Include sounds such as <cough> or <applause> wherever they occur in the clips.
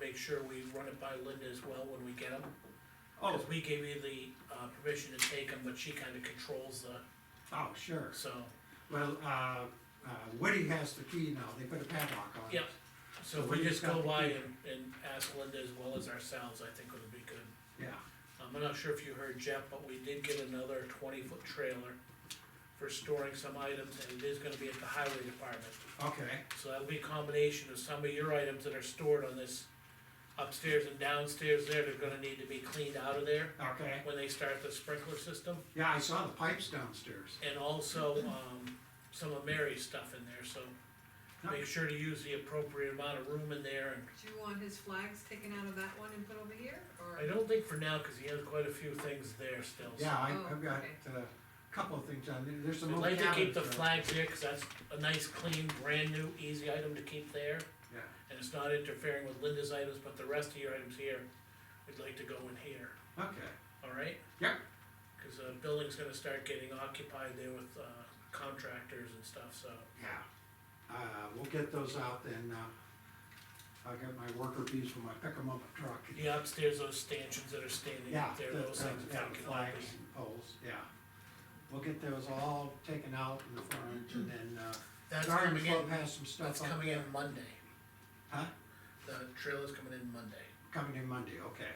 make sure we run it by Linda as well when we get them. Oh, Cause we gave you the, uh, permission to take them, but she kinda controls the, oh, sure. so, Well, uh, uh, Woody has the key now, they put a padlock on it. yeah. So if So we we just got go the by key. and, and ask Linda as well as ourselves, I think would be good. Yeah, Um, I'm not sure if you heard Jeff, but we did get another twenty foot trailer for storing some items, and it is gonna be at the highway department. okay, So that'll be a combination of some of your items that are stored on this upstairs and downstairs there, they're gonna need to be cleaned out of there okay. when they start the sprinkler system. Yeah, I saw the pipes downstairs. And also, um, some of Mary's stuff in there, so make sure to use the appropriate amount of room in there. And Do you want his flags taken out of that one and put over here, or? I don't think for now, cause he has quite a few things there still. so- Yeah, I, Oh, I've got okay. uh, a couple of things on there, there's some I'd old like to keep cabinets. the right? flags there, cause that's a nice, clean, brand new, easy item to keep there. Yeah, And it's not interfering with Linda's items, but the rest of your items here, we'd like to go in here, okay, alright? Yep. Cause the building's gonna start getting occupied there with, uh, contractors and stuff, so. yeah. Uh, we'll get those out then, uh, I got my worker bees when I pick them up a truck. Yeah, upstairs, those stanchions that are standing Yeah, up there, the- those uh, things. yeah, that can all flags be- and poles, yeah. We'll get those all taken out in the front and then, uh, That's garden coming club in, has some stuff that's up coming there. in Monday. Huh? The trailer's coming in Monday, Coming in Monday, okay.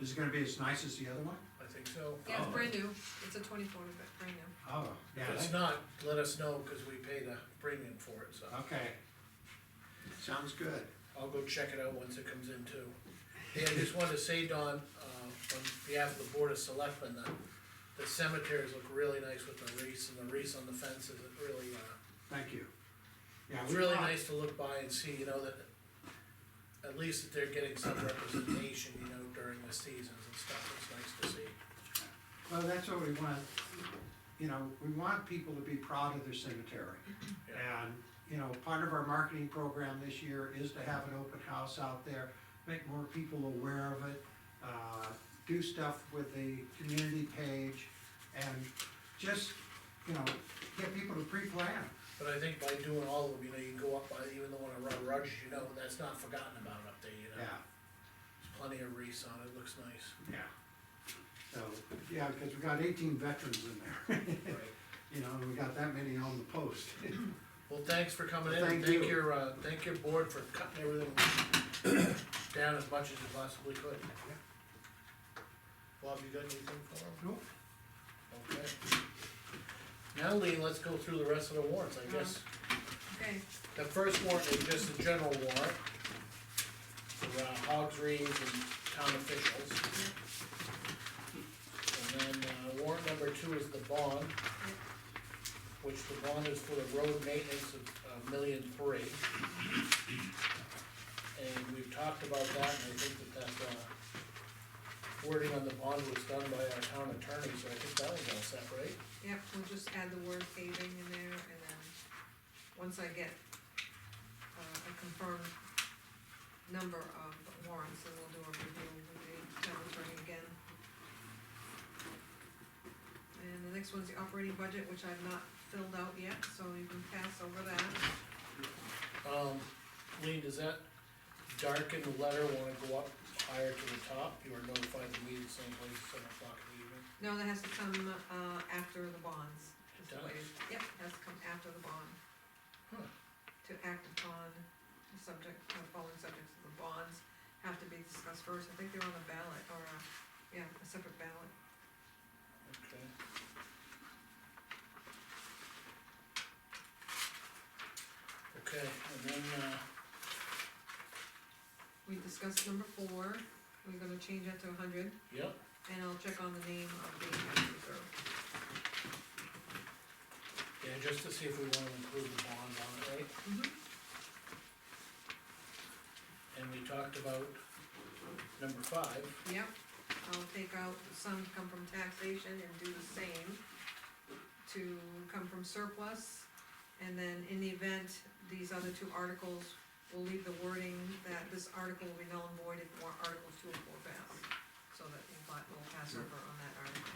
Is it gonna be as nice as the other one? I think so. Yeah, Oh. it's brand new, it's a twenty-four, but brand new. Oh, yeah, If it's that- not, let us know, cause we paid a premium for it, so. okay. Sounds good. I'll go check it out once it comes in too. Yeah, I just wanted to say, Don, uh, on behalf of the Board of Selectmen, the, the cemeteries look really nice with the wreaths and the wreaths on the fences, it really, uh, Thank you. Yeah, it's we really thought- nice to look by and see, you know, that at least that they're getting some representation, you know, during the seasons and stuff, it's nice to see. Well, that's what we want, you know, we want people to be proud of their cemetery. And, you know, part of our marketing program this year is to have an open house out there, make more people aware of it, uh, do stuff with the community page, and just, you know, get people to pre-plan. But I think by doing all of them, you know, you can go up by, even the one around Rogers, you know, that's not forgotten about up there, you know? Yeah, There's plenty of wreaths on it, looks nice, yeah. So, yeah, because we got eighteen veterans in there, <laughs> right? you know, and we got that many on the post. Well, thanks for coming in, and Thank thank you. your, uh, thank your board for cutting everything <coughs> down as much as you possibly could. Bob, you got anything for him? Nope. Okay. Now, Lee, let's go through the rest of the warrants, I guess. Okay, The first warrant is just a general warrant. For, uh, hogs reeds and town officials. And then, uh, warrant number two is the bond. Which the bond is for the road maintenance of a million three. And we've talked about that, and I think that that, uh, wording on the bond was done by our town attorney, so I think that was all set, right? yep, we'll just add the word paving in there, and then, once I get, uh, a confirmed number of warrants, then we'll do a review with the town attorney again. And the next one's the operating budget, which I've not filled out yet, so you can pass over that. Um, Lean, does that darkened letter wanna go up higher to the top? You are notified to meet at the same place at seven o'clock in the evening. No, that has to come, uh, after the bonds, is the Done. way, yep, has to come after the bond. Huh. To act upon the subject, the following subjects of the bonds have to be discussed first, I think they're on the ballot, or, uh, yeah, a separate ballot. Okay. Okay, and then, uh, We discussed number four, we're gonna change that to a hundred, yep, and I'll check on the name of the tax reserve. yeah, just to see if we wanna include the bond on it, right? Mhm. And we talked about number five, Yep, I'll take out some to come from taxation and do the same, to come from surplus. And then in the event, these other two articles, we'll leave the wording that this article will be null and void if more articles two and four pass. So that we'll pa- we'll pass over on that article,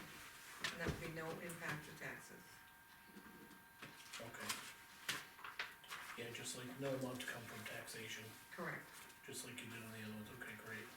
and that would be no impact to taxes. okay. Yeah, just like, no amount to come from taxation, Correct. just like you did on the other ones, okay.